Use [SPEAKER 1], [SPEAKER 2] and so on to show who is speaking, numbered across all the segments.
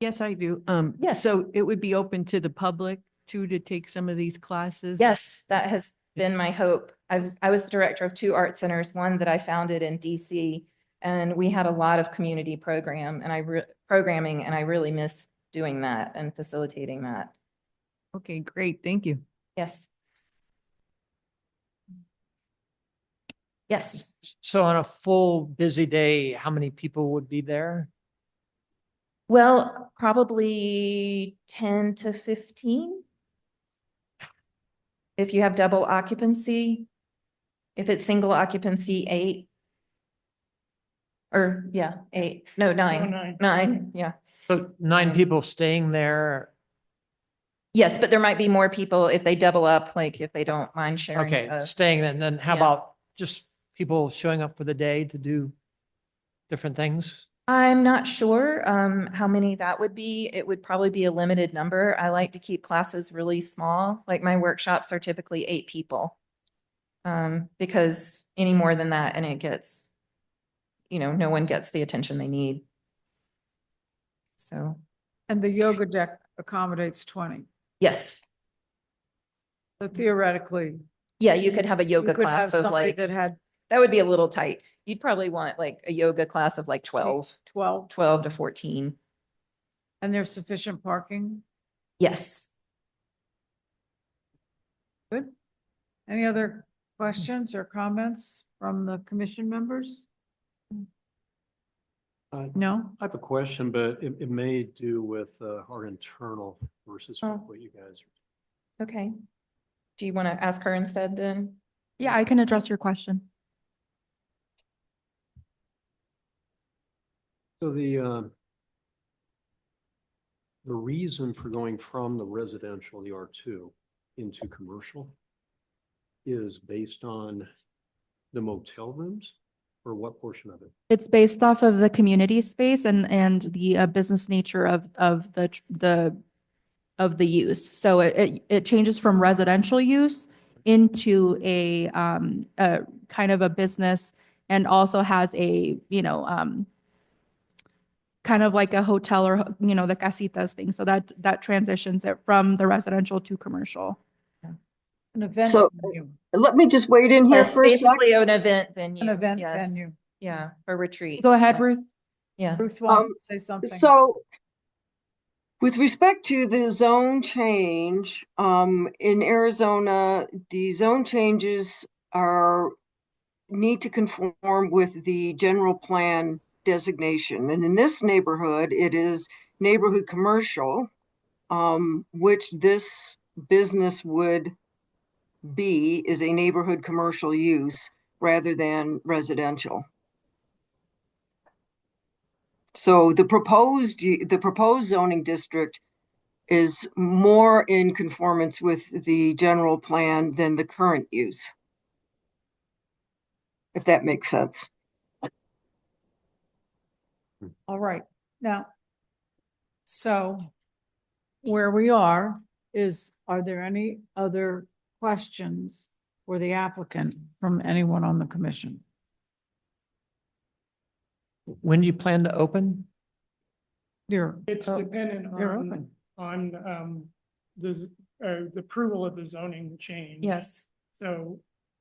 [SPEAKER 1] Yes, I do. Um,
[SPEAKER 2] Yes.
[SPEAKER 1] so it would be open to the public too, to take some of these classes?
[SPEAKER 2] Yes, that has been my hope. I, I was the director of two art centers, one that I founded in DC. And we had a lot of community program and I, re- programming, and I really miss doing that and facilitating that.
[SPEAKER 1] Okay, great. Thank you.
[SPEAKER 2] Yes. Yes,
[SPEAKER 3] So on a full busy day, how many people would be there?
[SPEAKER 2] well, probably ten to fifteen. If you have double occupancy, if it's single occupancy, eight. Or, yeah, eight, no, nine, nine, yeah.
[SPEAKER 3] So nine people staying there.
[SPEAKER 2] Yes, but there might be more people if they double up, like if they don't mind sharing.
[SPEAKER 3] Okay,
[SPEAKER 2] a-
[SPEAKER 3] uh, staying there. And then how
[SPEAKER 2] yeah.
[SPEAKER 3] about just people showing up for the day to do different things?
[SPEAKER 2] I'm not sure um, how many that would be. It would probably be a limited number. I like to keep classes really small. Like my workshops are typically eight people. Um, because any more than that and it gets, you know, no one gets the attention they need. So,
[SPEAKER 4] And the yoga deck accommodates twenty.
[SPEAKER 2] yes.
[SPEAKER 4] So theoretically.
[SPEAKER 2] Yeah, you could have a
[SPEAKER 4] you
[SPEAKER 2] yoga
[SPEAKER 4] could have
[SPEAKER 2] class of
[SPEAKER 4] somebody
[SPEAKER 2] like,
[SPEAKER 4] That had
[SPEAKER 2] that would be a little tight. You'd probably want like a yoga class of like 12,
[SPEAKER 4] twelve
[SPEAKER 2] 12 to 14.
[SPEAKER 4] and there's sufficient parking.
[SPEAKER 2] Yes.
[SPEAKER 4] Good. Any other questions or comments from the commission members?
[SPEAKER 5] Uh,
[SPEAKER 4] No?
[SPEAKER 5] I have a question, but it, it may do with uh, our internal versus
[SPEAKER 2] Oh.
[SPEAKER 5] with what you guys.
[SPEAKER 2] Okay. Do you want to ask her instead then?
[SPEAKER 6] Yeah, I can address your question.
[SPEAKER 5] So the, um, the reason for going from the residential, the R2, into commercial is based on the motel rooms or what portion of it?
[SPEAKER 6] It's based off of the community space and, and the uh, business nature of, of the, tr- the, of the use. So it, it- it changes from residential use into a, um, a kind of a business and also has a, you know, um, kind of like a hotel or, you know, the casitas thing. So that, that transitions it from the residential to commercial.
[SPEAKER 4] An event
[SPEAKER 7] So-
[SPEAKER 4] venue.
[SPEAKER 7] Let me just wade in here
[SPEAKER 2] Yes,
[SPEAKER 7] for a sec.
[SPEAKER 2] Basically an event venue.
[SPEAKER 4] An event
[SPEAKER 2] yes.
[SPEAKER 4] venue.
[SPEAKER 2] Yeah, a retreat.
[SPEAKER 6] Go ahead,
[SPEAKER 2] Yeah.
[SPEAKER 6] Ruth.
[SPEAKER 2] Yeah.
[SPEAKER 4] Ruth wants
[SPEAKER 7] Um,
[SPEAKER 4] to say something.
[SPEAKER 7] So with respect to the zone change, um, in Arizona, the zone changes are need to conform with the general plan designation. And in this neighborhood, it is neighborhood commercial, um, which this business would be is a neighborhood commercial use rather than residential. So the proposed, u- the proposed zoning district is more in conformance with the general plan than the current use. If that makes sense.
[SPEAKER 4] All right, now, so where we are is, are there any other questions for the applicant from anyone on the commission?
[SPEAKER 3] When do you plan to open?
[SPEAKER 4] You're,
[SPEAKER 8] It's
[SPEAKER 4] Oh,
[SPEAKER 8] dependent
[SPEAKER 4] you're
[SPEAKER 8] on,
[SPEAKER 4] open.
[SPEAKER 8] on, um, the, z- uh, the approval of the zoning change.
[SPEAKER 2] Yes.
[SPEAKER 8] So,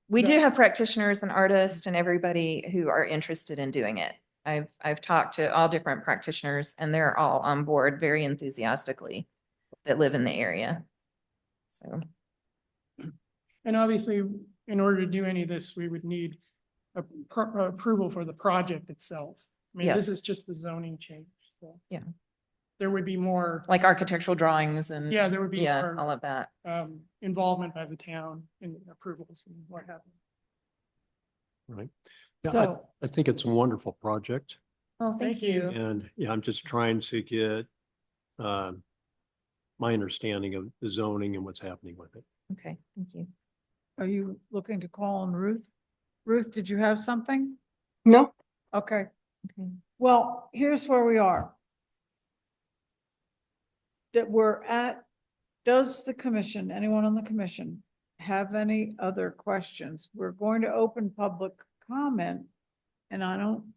[SPEAKER 2] We do
[SPEAKER 8] Yeah.
[SPEAKER 2] have practitioners and artists and everybody who are interested in doing it. I've, I've talked to all different practitioners and they're all on board very enthusiastically that live in the area. So,
[SPEAKER 8] and obviously, in order to do any of this, we would need a, pro- uh, approval for the project itself. I mean,
[SPEAKER 2] Yes.
[SPEAKER 8] this is just the zoning change, so.
[SPEAKER 2] Yeah.
[SPEAKER 8] There would be more,
[SPEAKER 2] like architectural drawings and
[SPEAKER 8] yeah, there would be
[SPEAKER 2] yeah, all
[SPEAKER 8] more,
[SPEAKER 2] of that.
[SPEAKER 8] um, involvement by the town in approvals and what have you.
[SPEAKER 5] Yeah, I-
[SPEAKER 4] so,
[SPEAKER 5] I think it's a wonderful project.
[SPEAKER 2] Oh,
[SPEAKER 8] thank you.
[SPEAKER 5] And yeah, I'm just trying to get um, my understanding of the zoning and what's happening with it.
[SPEAKER 2] Okay, thank you.
[SPEAKER 4] are you looking to call on Ruth? Ruth, did you have something?
[SPEAKER 7] No?
[SPEAKER 4] Okay,
[SPEAKER 2] Okay.
[SPEAKER 4] well, here's where we are. That we're at, does the commission, anyone on the commission have any other questions? We're going to open public comment. And I don't